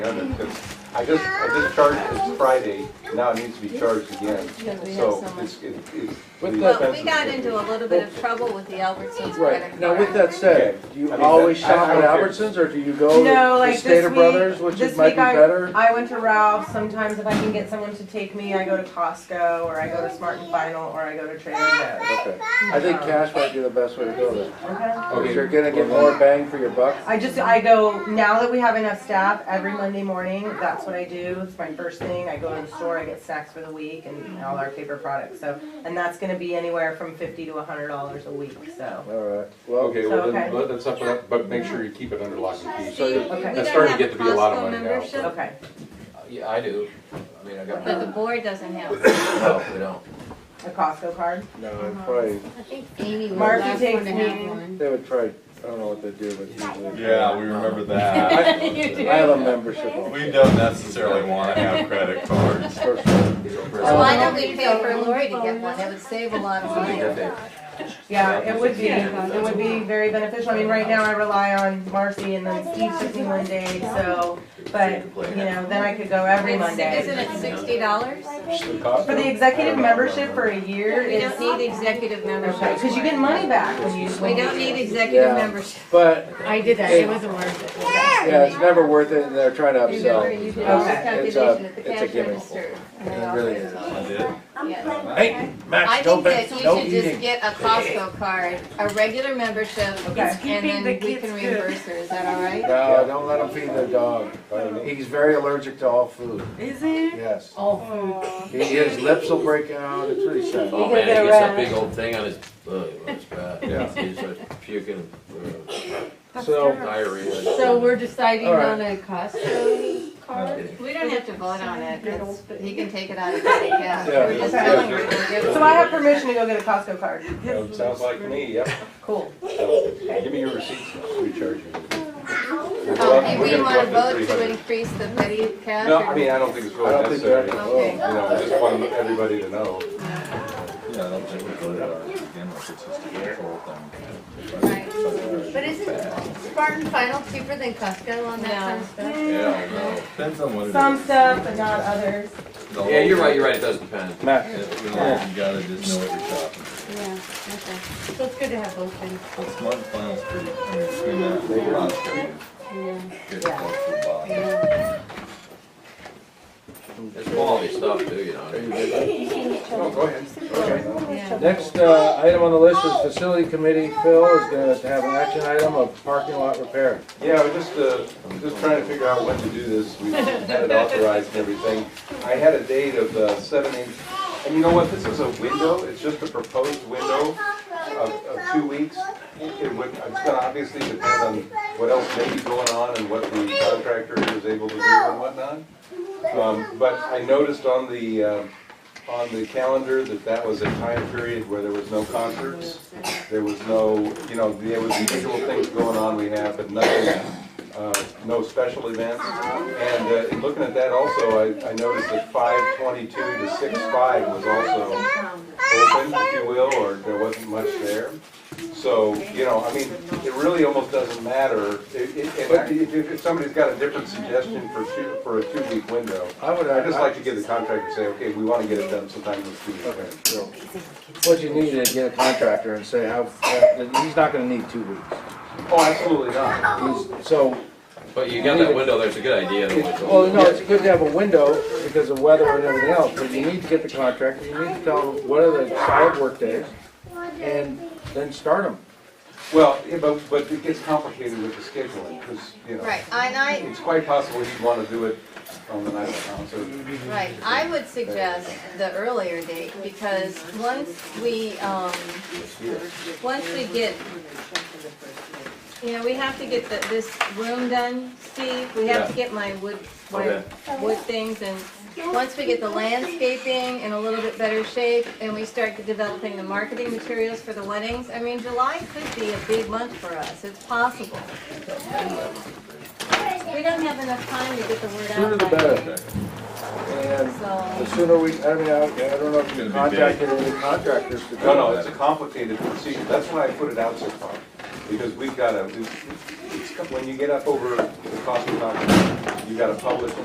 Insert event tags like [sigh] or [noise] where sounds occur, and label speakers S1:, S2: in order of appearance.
S1: done it, 'cause I just, I just charged this Friday, now it needs to be charged again,
S2: we have
S1: so
S2: so much.
S1: it's, it- it's.
S3: With
S1: the
S3: that-
S2: Well, we
S1: expenses
S2: got
S1: are-
S2: into a little bit of trouble with the Albertsons credit
S3: Right,
S2: card.
S3: now with that said, do you
S1: I mean,
S3: always
S1: that- I-
S3: shop
S1: I don't
S3: at
S1: care.
S3: Albertsons, or do you go
S4: No,
S3: to
S4: like
S3: Oh, Stater
S4: this week-
S3: Brothers, which
S4: this
S3: is- might be
S4: week I-
S3: better?
S4: I went to Ralph's. Sometimes if I can get someone to take me, I go to Costco or I go to Smart and Final or I go to Trader Joe's.
S3: Okay, I think cash might be the best way to go there,
S4: Okay.
S3: because you're gonna get more bang for your buck.
S4: I just I go now that we have enough staff every Monday morning. That's what I do. It's my first thing. I go to the store. I get snacks for the week and all our paper products. So and that's going to be anywhere from fifty to hundred dollars a week. So
S3: All right, well,
S5: Okay, well
S4: Okay.
S5: then, let- let's up it up, but make sure you keep it under lock and key.
S2: See,
S3: So,
S2: we
S4: okay.
S5: That's starting
S2: don't
S5: to
S2: have
S5: get to be a lot of
S2: Costco
S5: money now,
S2: membership,
S4: okay.
S6: Uh, Yeah, I do. I mean,
S2: [laughs]
S6: I got,
S2: But the
S6: no,
S2: board doesn't have.
S6: we don't.
S4: A Costco card.
S3: no, it'd probably,
S7: I think Amy was the
S4: Marky
S7: last
S4: takes
S7: one to
S4: me.
S7: have one.
S3: they would try, I don't know what they do, but usually.
S8: Yeah, we remember that.
S2: [laughs]
S3: I have a membership.
S8: We don't necessarily want to have credit
S3: [laughs]
S8: cards.
S3: First one.
S6: These are
S2: So why
S6: presents.
S2: don't we pay for Lori to get one? It would save a lot of money.
S6: Good day.
S4: Yeah, it would be, um, it would be very beneficial, I mean, right now I rely on Marcy and then Steve took me one day, so, but, you know, then I could go every
S2: It's- Isn't
S4: Monday.
S2: it sixty dollars?
S1: the cost
S4: For
S1: of-
S4: the executive membership for a year
S2: We
S4: is,
S2: don't need executive membership.
S4: because you get money back when you.
S2: We don't need executive
S3: Yeah.
S2: membership.
S3: But,
S7: I did that, it wasn't worth it.
S3: yeah, it's never worth it, and they're trying to
S2: Remember,
S3: upsell.
S2: you did
S4: all
S2: all
S4: this
S2: this
S4: Okay.
S3: calculation
S2: calculation
S3: It's
S2: at the
S3: a- at the it's a cash
S2: cash
S3: gimmick.
S2: register.
S3: It really is.
S8: I did.
S3: Hey,
S2: I
S3: Max,
S2: think
S3: don't,
S2: that you
S3: be- don't
S2: should
S3: eating.
S2: just get a Costco card, a regular membership, and
S4: Okay.
S2: then we can reimburse her, is that all right?
S3: No, don't let him feed the dog. He's very allergic to all food. Is he? Yes. All food. His lips will break out, it's really sad.
S6: Oh, man, he gets that big old thing on his, uh, on his back.
S3: Yeah.
S6: He starts puking, uh,
S3: So,
S6: diarrhea.
S7: So we're deciding
S3: All right.
S7: on a Costco card?
S2: We don't have to vote on it, it's, he can take it out of that, yeah.
S3: Yeah.
S2: We're just
S4: Okay.
S2: telling her, we'll give it.
S4: So I have permission to go get a Costco card,
S1: That Sounds like to me, yep.
S4: cool.
S1: So, Give me your receipts, we charge you.
S2: Um,
S1: We're
S2: do we
S1: gonna go
S2: want
S1: up
S2: to vote
S1: $300.
S2: to increase the petty cash?
S1: No,
S2: or-
S1: I mean, I don't think it's
S3: I
S1: really
S3: don't think
S1: necessary, you
S3: that-
S2: Okay.
S1: know, I just want everybody to know.
S8: Yeah, I don't think we voted on it to begin with, it's just a control thing.
S2: Right.
S7: But isn't Spartan Final cheaper than Costco on that kind of stuff?
S8: Yeah, no. Depends on what it is.
S4: Some stuff, but not others.
S6: Yeah, you're right, you're right, it does depend.
S8: Yeah,
S3: Max,
S8: You know, you gotta just know what you're shopping.
S7: Mm. Yeah, okay. So it's good to have both things.
S8: But Smart and Final's pretty, I mean, between that and Costco,
S7: Yeah.
S8: you get close to the bottom.
S6: It's quality stuff too, you know.
S1: No, Oh, go ahead.
S3: next uh, item on the list is Facility Committee. Phil is gonna have an action item of parking lot repair.
S1: Yeah, we're just, uh, just trying to figure out when to do this, we had it authorized and everything. I had a date of uh, seven, eight, and you know what, this is a window, it's just a proposed window of, of two weeks. It would, it's gonna obviously depend on what else may be going on and what the contractor is able to do and whatnot. Um, but I noticed on the, uh, on the calendar that that was a time period where there was no concerts. There was no, you know, there was the usual things going on we have, but nothing, uh, no special events. And uh, in looking at that also, I, I noticed that five twenty-two to six five was also open,
S4: Um,
S1: if you will, or there wasn't much there. So, you know, I mean, it really almost doesn't matter. It- it- and I- If, if somebody's got a different suggestion for two, for a two-week window,
S3: I would, uh,
S1: I'd just like
S3: I,
S1: to give the contractor, say, okay, we want to get it done sometime this week.
S3: okay, so, what you need is get a contractor and say how, he's not gonna need two weeks.
S1: Oh, absolutely not.
S3: He's, so,
S6: But you got that window there, it's a good idea. to watch all
S3: Well,
S6: the-
S3: no, it's good to have a window because of weather and everything else, but you need to get the contractor, you need to tell them what are the solid work days, and then start them.
S1: Well, yeah, but, but it gets complicated with the scheduling, because, you know,
S2: Right, and I,
S1: it's quite possible he'd want to do it on the night of the concert.
S2: right, I would suggest the earlier date, because once we, um, once we get, you know, we have to get the, this room done, Steve, we have to get my wood, my
S6: Okay.
S2: wood things, and once we get the landscaping in a little bit better shape, and we start developing the marketing materials for the weddings, I mean, July could be a big month for us, it's possible. We don't have enough time to get the word out.
S3: Sooner the
S2: by then.
S3: better. And the
S2: So,
S3: sooner we, I mean, I I don't know if you
S8: It's gonna be big.
S3: contacted any contractors to do
S1: No, no, it's a
S3: that.
S1: complicated procedure, that's why I put it out so far, because we've got to, it's, when you get up over the cost of contract, you gotta publish